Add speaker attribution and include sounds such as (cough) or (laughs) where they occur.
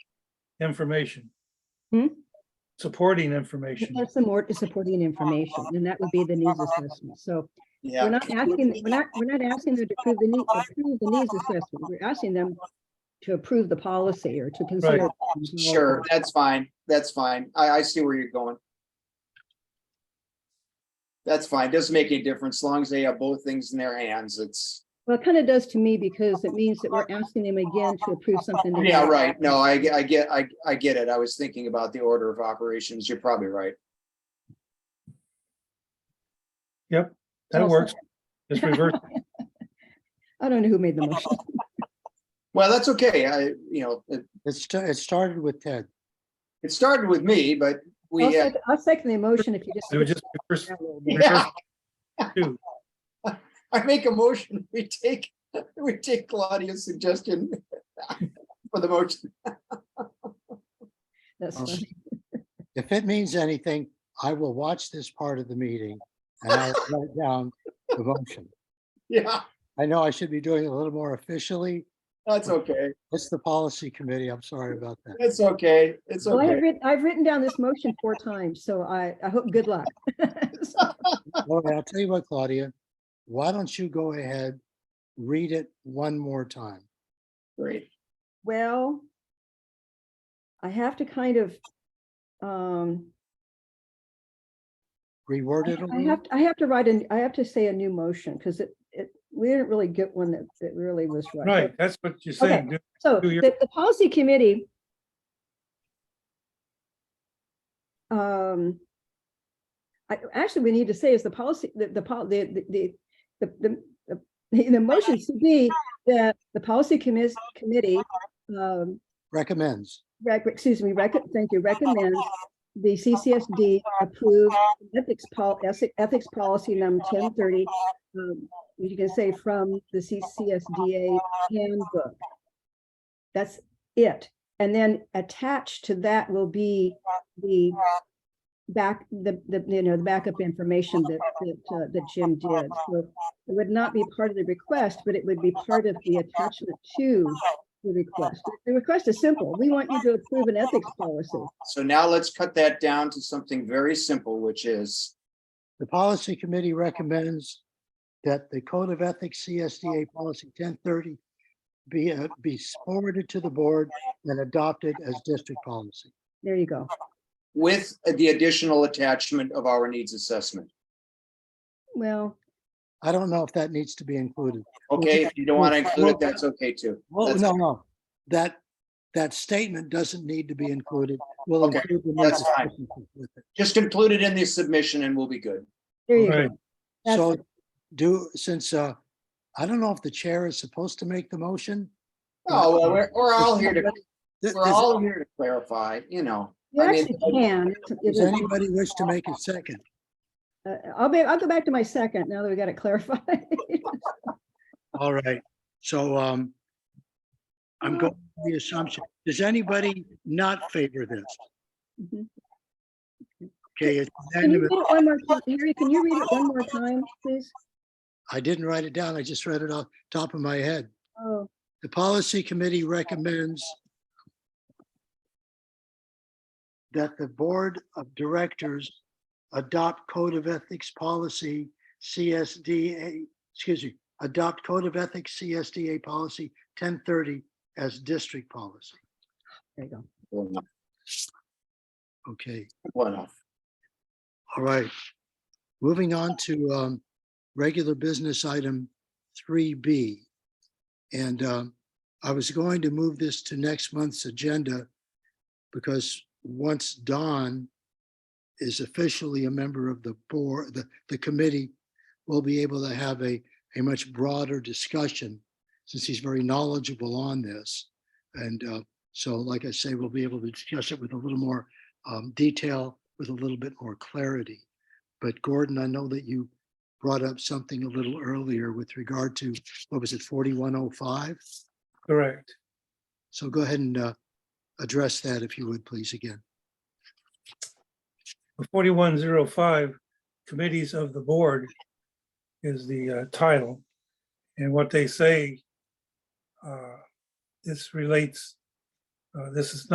Speaker 1: information.
Speaker 2: Hmm?
Speaker 1: Supporting information.
Speaker 2: There's some more supporting information, and that would be the needs assessment. So we're
Speaker 3: Uh, Yeah,
Speaker 2: not asking, we're not, we're not asking them to approve the need, approve the needs assessment. We're asking them to approve the policy or to consider.
Speaker 3: sure, that's fine, that's fine. I, I see where you're going. That's fine, doesn't make any difference, as long as they have both things in their hands, it's,
Speaker 2: Well, it kind of does to me because it means that we're asking them again to approve something. that-
Speaker 3: yeah, right, no, I, ge- I get, I, I get it, I was thinking about the order of operations, you're probably right.
Speaker 1: Yep, that works. It's reverse.
Speaker 2: I don't know who made the motion.
Speaker 3: Well, that's okay, I, you know, it,
Speaker 4: It sta- it started with Ted.
Speaker 3: it started with me, but (laughs) we
Speaker 2: I'll
Speaker 3: had,
Speaker 2: sec- I'll second the motion if you just.
Speaker 1: It would
Speaker 2: (laughs)
Speaker 1: just reverse.
Speaker 3: (laughs) yeah.
Speaker 1: Two.
Speaker 3: I make a motion, we take, we take Claudia's suggestion (laughs) for the motion.
Speaker 2: That's
Speaker 4: Oh.
Speaker 2: funny.
Speaker 4: If it means anything, I will watch this part of the meeting and I'll write down the motion.
Speaker 3: Yeah,
Speaker 4: I know I should be doing it a little more officially.
Speaker 3: that's okay.
Speaker 4: It's the policy committee. I'm sorry about
Speaker 2: (laughs)
Speaker 4: that.
Speaker 3: It's okay. It's
Speaker 2: Well, I have
Speaker 3: okay.
Speaker 2: written, I've written down this motion four times, so I, I hope, good luck.
Speaker 4: All right, I'll tell you what, Claudia, why don't you go ahead, read it one more time?
Speaker 3: Great.
Speaker 2: Well, I have to kind of, um,
Speaker 4: Reword it a
Speaker 2: I
Speaker 4: little.
Speaker 2: have, I have to write an, I have to say a new motion because it, it, we didn't really get one that, that really was right.
Speaker 1: Right, that's what you're saying. Do-
Speaker 2: So
Speaker 1: Do your-
Speaker 2: the, the policy committee um, I, actually, we need to say is the policy, the, the, pol- the, the- the, the, the- the, the motion should be that the policy commis, committee um,
Speaker 4: Recommends.
Speaker 2: rec, excuse me, rec, thank you, recommend the CCSD approve ethics pol, ethic- ethics policy number ten thirty. um, You can say from the CCSDA handbook. That's it. And then attached to that will be the back, the, the, you know, the backup information that, that, uh, that Jim did. So it would not be part of the request, but it would be part of the attachment to the request. The request is simple. We want you to approve an ethics policy.
Speaker 3: So now let's cut that down to something very simple, which is,
Speaker 4: The policy committee recommends that the Code of Ethics CSDA Policy 1030 be, uh, be forwarded to the board and adopted as district policy.
Speaker 2: There you go.
Speaker 3: with the additional attachment of our needs assessment.
Speaker 2: Well,
Speaker 4: I don't know if that needs to be included.
Speaker 3: Okay, if you don't want to include it, that's okay too.
Speaker 4: Well,
Speaker 3: That's-
Speaker 4: no, no, that, that statement doesn't need to be included. We'll
Speaker 3: Okay,
Speaker 4: include the
Speaker 3: that's
Speaker 4: needs
Speaker 3: fine.
Speaker 4: assessment with it.
Speaker 3: Just include it in the submission and we'll be good.
Speaker 2: there you
Speaker 1: Right.
Speaker 2: go. That's
Speaker 4: So do, since, uh, I don't know if the chair is supposed to make the motion.
Speaker 3: Oh, well, we're, we're all here to,
Speaker 4: Th-
Speaker 3: we're
Speaker 4: does-
Speaker 3: all here to clarify, you know.
Speaker 2: You
Speaker 3: I mean-
Speaker 2: actually can. It's-
Speaker 4: Does
Speaker 2: it's-
Speaker 4: anybody wish to make a second?
Speaker 2: uh, I'll be, I'll go back to my second now that we got it clarified.
Speaker 4: All right, so, um, I'm going with the assumption, does anybody not favor this?
Speaker 2: Mhm.
Speaker 4: Okay, it's
Speaker 2: Can you read
Speaker 4: unanimous.
Speaker 2: it one more time? Harry, can you read it one more time, please?
Speaker 4: I didn't write it down, I just read it off top of my head.
Speaker 2: Oh,
Speaker 4: The policy committee recommends that the board of directors adopt code of ethics policy CSDA, excuse me, adopt code of ethics CSDA policy 1030 as district policy.
Speaker 2: there you go.
Speaker 3: Well, enough,
Speaker 4: Okay,
Speaker 3: well, enough.
Speaker 4: all right. Moving on to um, regular business item 3B. And um, I was going to move this to next month's agenda because once Don is officially a member of the board, the, the committee, we'll be able to have a, a much broader discussion since he's very knowledgeable on this. And uh, so, like I say, we'll be able to discuss it with a little more um, detail, with a little bit more clarity. But Gordon, I know that you brought up something a little earlier with regard to, what was it, 4105?
Speaker 1: Correct.
Speaker 4: So go ahead and uh, address that if you would, please, again.
Speaker 1: 4105, Committees of the Board is the uh, title. And what they say, uh, this relates, uh, this is